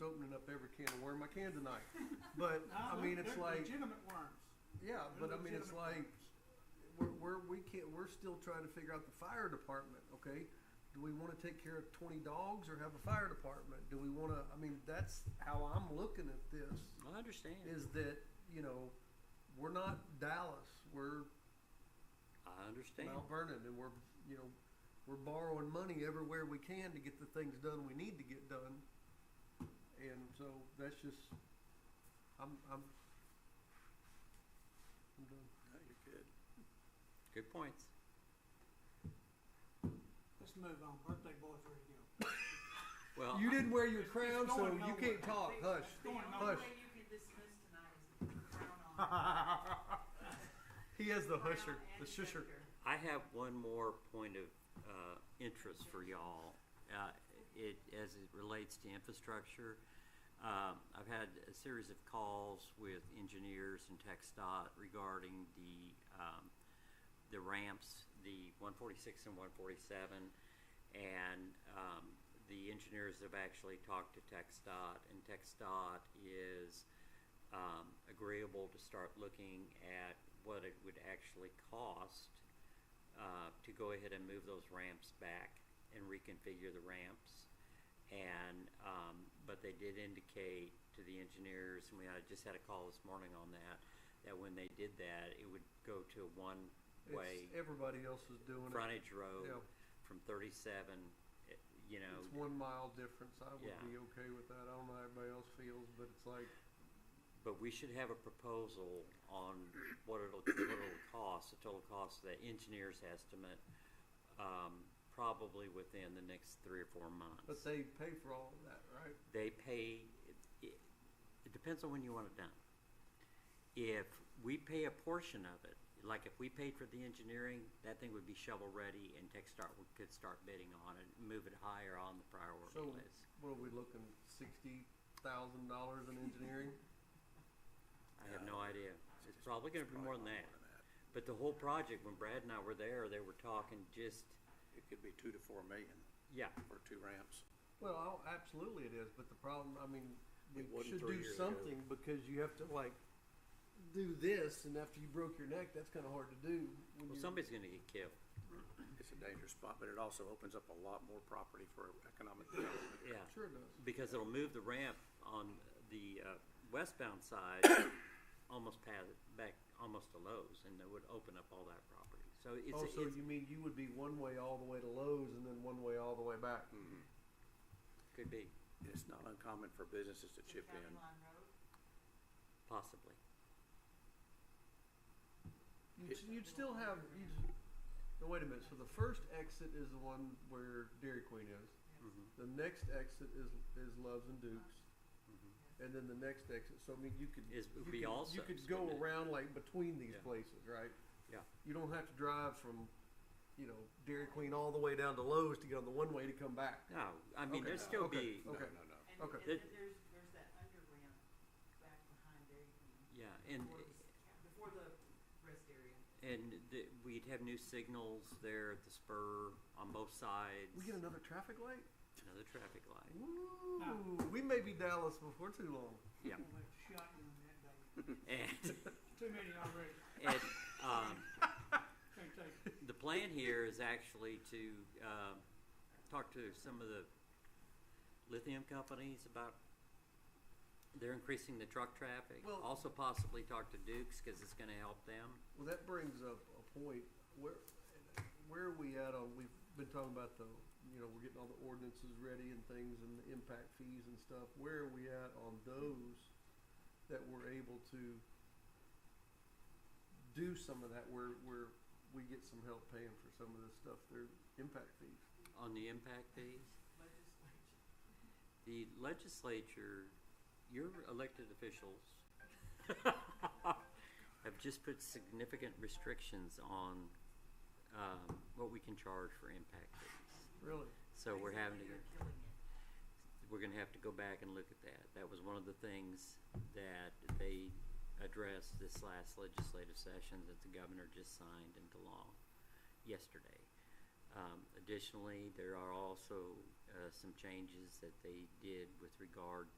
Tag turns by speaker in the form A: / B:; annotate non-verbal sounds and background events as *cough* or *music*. A: opening up every can of worm I can tonight. But I mean, it's like,
B: legitimate worms.
A: yeah, but
B: They're
A: I mean, it's like
B: legitimate worms.
A: we're, we're we can't we're still trying to figure out the fire department. Okay, do we want to take care of twenty dogs or have a fire department? Do we want to? I mean, that's how I'm looking at this.
C: I understand.
A: Is that you know we're not Dallas. We're
C: I understand.
A: Mount Vernon, and we're you know we're borrowing money everywhere we can to get the things done we need to get done, and so that's just I'm I'm I'm done.
C: No, you're good. Good points.
B: Let's move on. Birthday boys ready to go.
C: Well,
A: You didn't wear your crown,
B: It's
A: so
B: going
A: you can't
B: nowhere.
A: talk. Hush.
B: It's going
D: The
B: nowhere.
A: Hush.
D: only way you can dismiss tonight is if you frown on.
A: *laughs* He has the
D: Frown
A: husher,
D: and
A: the shusher.
D: scepter.
C: I have one more point of uh, interest for y'all. Uh, it as it relates to infrastructure. Um, I've had a series of calls with engineers and TxDOT regarding the um, the ramps, the 146 and 147, and um, the engineers have actually talked to TxDOT, and TxDOT is um, agreeable to start looking at what it would actually cost uh, to go ahead and move those ramps back and reconfigure the ramps. And, um, but they did indicate to the engineers, and we had, just had a call this morning on that, that when they did that, it would go to a one-way
A: It's, everybody else is doing it.
C: frontage road
A: Yeah.
C: from thirty-seven, eh, you know,
A: It's one mile difference. I would
C: Yeah.
A: be okay with that. I don't know how everybody else feels, but it's like
C: but we should have a proposal on what it'll, what it'll cost, the total cost of that engineer's estimate, um, probably within the next three or four months.
A: but they pay for all of that, right?
C: they pay, it, it depends on when you want it done. If we pay a portion of it, like if we paid for the engineering, that thing would be shovel ready and Tech Start would- could start bidding on it, move it higher on the priority
A: So
C: list.
A: what are we looking? Sixty thousand dollars in
E: *laughs*
A: engineering?
C: I have no idea. It's probably gonna be more than that. But the whole project, when Brad and I were there, they were talking just,
E: It could be two to four million
C: yeah,
E: for two ramps.
A: Well, I'll- absolutely it is, but the problem, I mean, we
E: It wasn't
A: should
E: three
A: do
E: years
A: something because you have to like do this, and after you broke your neck, that's kind of hard to do. when
C: well,
A: you're-
C: somebody's gonna get killed.
E: It's a dangerous spot, but it also opens up a lot more property for economic development.
C: Yeah.
A: Sure does.
C: because it'll move the ramp on the uh, westbound side almost past, back almost to Lowe's, and it would open up all that property. So it's,
A: Oh, so
C: it's
A: you mean you would be one way all the way to Lowe's and then one way all the way back?
E: Mm-hmm.
C: could be
E: It's not uncommon for businesses
D: It's a
E: to chip
D: county
E: in.
D: line road.
C: possibly.
A: You'd, you'd still have, you'd, no, wait a minute, so the first exit is the one where Dairy Queen is.
C: Mhm.
A: The next exit is, is Loves and Dukes. And then the next exit, so I mean, you could.
C: Mm-hmm. Is- would
A: you
C: be
A: could-
C: all
A: You could
C: subs,
A: go
C: wouldn't it?
A: around like between these
C: Yeah.
A: places, right?
C: Yeah.
A: You don't have to drive from, you know, Dairy Queen all the way down to Lowe's to get on the one way to come back.
C: No, I mean
A: Okay.
C: there'd still
A: Okay.
C: be
E: No,
A: Okay.
E: no, no.
D: And,
A: Okay.
D: and then there's, there's that under ramp back behind there. you
C: yeah,
D: can-
C: and
D: before the s- Before the rest area.
C: and the, we'd have new signals there at the spur on both sides.
A: We get another traffic light?
C: another traffic light.
A: Ooh, we may be Dallas before too long.
C: Yeah,
B: We'll let you shot you in that day.
C: and
B: Too many already.
C: and um,
B: Can't take it.
C: the plan here is actually to um, talk to some of the lithium companies about they're increasing the truck traffic.
A: Well-
C: also, possibly talk to Dukes because it's going to help them.
A: Well, that brings up a point. Where, where are we at on, we've been talking about the, you know, we're getting all the ordinances ready and things and the impact fees and stuff. Where are we at on those that we're able to do some of that where, where we get some help paying for some of this stuff, their impact fees?
C: on the impact fees.
D: Legislature.
C: The legislature, your elected officials, have just put significant restrictions on um, what we can charge for impact fees.
A: Really?
C: So we're having to.
D: Basically, You're
C: get
D: killing it.
C: we're gonna have to go back and look at that. That was one of the things that they addressed this last legislative session that the governor just signed into law yesterday. Um, additionally, there are also, uh, some changes that they did with regard